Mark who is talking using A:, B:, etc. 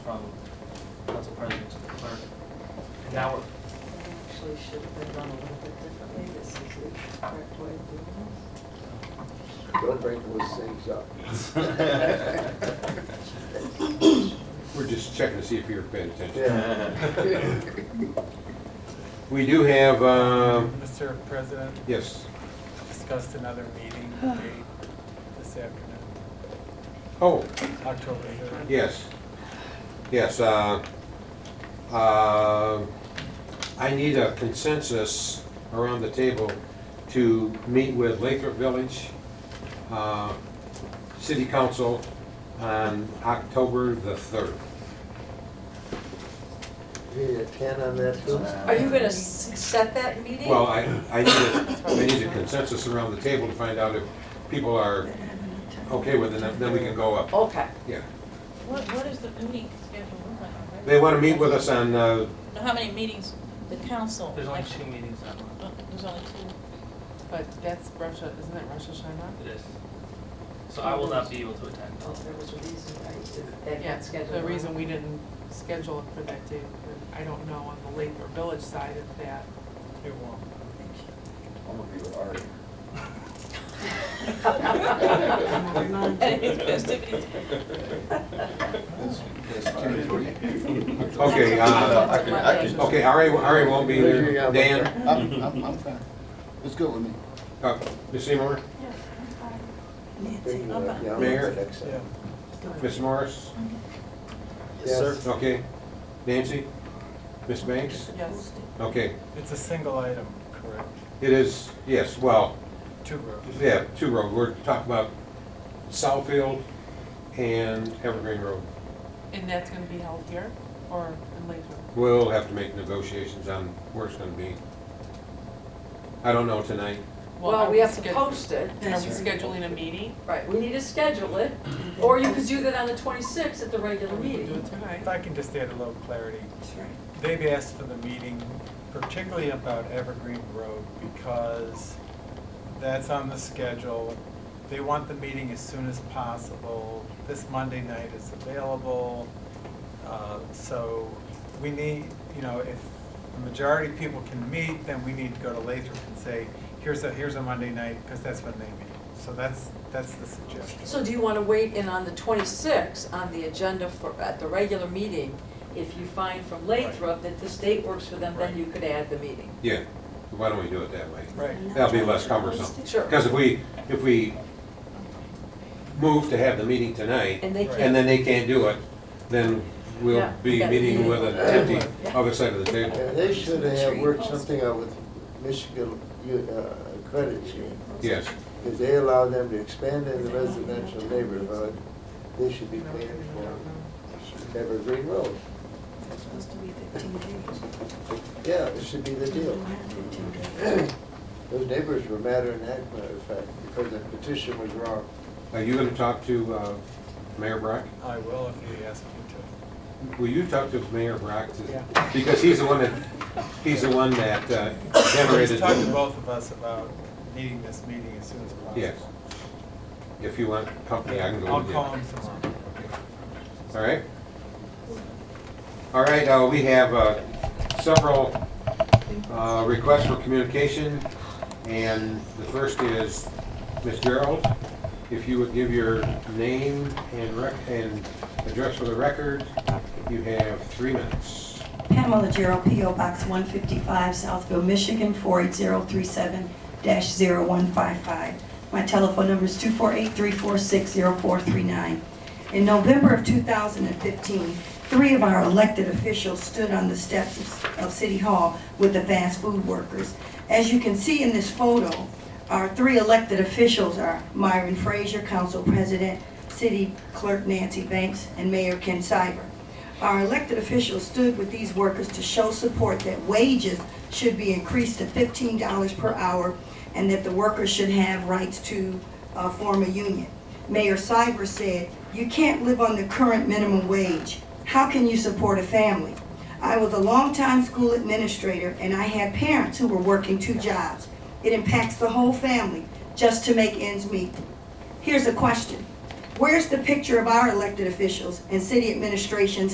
A: from council president to the clerk. And now we're,
B: Actually should have been done a little bit differently. This is the correct way of doing this.
C: Don't bring those things up.
D: We're just checking to see if you're paying attention.
C: Yeah.
D: We do have, uh,
E: Mr. President,
D: yes,
E: discussed another meeting date this afternoon,
D: oh,
E: October 3rd.
D: yes, yes. uh, uh, I need a consensus around the table to meet with Lathrop Village uh, City Council on October the 3rd.
C: You Need a ten on that too?
B: Are you gonna s- set that meeting?
D: Well, I, I need, a- I need a consensus around the table to find out if people are okay with it, and then we can go up,
B: Okay.
D: yeah.
F: What, what is the meeting schedule look like already?
D: They want to meet with us on, uh,
F: Now, How many meetings, the council?
A: there's only
F: like-
A: two meetings that month.
F: Uh, There's only two.
G: But that's Russia, isn't it Russia Hashanah?
A: It is. So I will not be able to attend.
B: Well, there was a reason I- that
G: Yeah,
B: got scheduled.
G: The reason we didn't schedule it for that day, but I don't know on the Lake or Village side of that.
E: It won't.
F: And it's festivities.
D: okay, uh,
F: I can- I can-
D: okay, Ari, Ari won't be there. Dan,
H: I'm, I'm, I'm fine. It's good with me.
D: uh, Ms. Seymour,
C: Bring, uh, yeah,
D: Mayor?
C: next time.
D: Ms. Morris,
C: Yes.
D: okay, Nancy, Ms. Banks,
G: Yes,
D: okay.
E: It's a single item, correct?
D: It is, yes, well,
E: Two rows.
D: yeah, two road, we're talking about Southfield and Evergreen Road.
G: and that's gonna be held here or in Lathrow?
D: We'll have to make negotiations on where it's gonna be. I don't know tonight.
G: are
B: Well, we have to
G: sched-
B: post it.
G: Are we scheduling a meeting?
B: Right, we need to schedule it, or you could do that on the twenty-sixth at the regular
G: We can do it
B: meeting.
G: tonight.
E: If I can just add a little clarity. They've asked for the meeting particularly about Evergreen Road because that's on the schedule. They want the meeting as soon as possible. This Monday night is available. Uh, So we need, you know, if the majority of people can meet, then we need to go to Lathrop and say, here's a, here's a Monday night, because that's when they meet. So that's, that's the suggestion.
B: So do you wanna wait in on the twenty-sixth on the agenda for, at the regular meeting? If you find from Lathrop that this date works for them, then
E: Right.
B: you could add the meeting.
D: Yeah, why don't we do it that way?
E: Right.
D: That'll be less cumbersome.
B: Sure.
D: Because if we, if we move to have the meeting tonight,
B: And they
E: Right.
D: and
B: can't,
D: then they can't do it, then we'll
B: Yeah,
D: be
B: yeah.
D: meeting with an empty other side of the
C: Yeah,
D: table.
C: they should have worked something out with Michigan U- uh, Credit Union.
D: Yes,
C: If they allow them to expand in the residential neighborhood, they should be paying for Evergreen Road.
I: It's supposed to be fifteen days.
C: Yeah, this should be the deal.
I: Fifteen days.
C: Those neighbors were madder than heck, matter of fact, because the petition was wrong.
D: are you gonna talk to uh, Mayor Brock?
E: I will if you ask me to.
D: Will you talk to Mayor Brock? to-
E: Yeah.
D: Because he's the one that, he's the one that uh,
E: He's
D: generated,
E: talked to both of us about needing this meeting as soon as possible.
D: Yes. if you want company, I can go
E: I'll
D: with you.
E: call him tomorrow.
D: All right. All right, uh, we have, uh, several, uh, requests for communication, and the first is, Ms. Gerald, if you would give your name and rec, and address for the record, you have three minutes.
I: Pamela Gerald, P.O. Box 155, Southville, Michigan, 48037-0155. My telephone number is 248-346-0439. In November of 2015, three of our elected officials stood on the steps of- of City Hall with the fast food workers. As you can see in this photo, our three elected officials are Myron Frazier, Council President, City Clerk Nancy Banks, and Mayor Ken Syber. Our elected officials stood with these workers to show support that wages should be increased to fifteen dollars per hour and that the workers should have rights to uh, form a union. Mayor Cybers said, "You can't live on the current minimum wage. How can you support a family?" I was a longtime school administrator and I had parents who were working two jobs. It impacts the whole family just to make ends meet. Here's a question. Where's the picture of our elected officials and city administration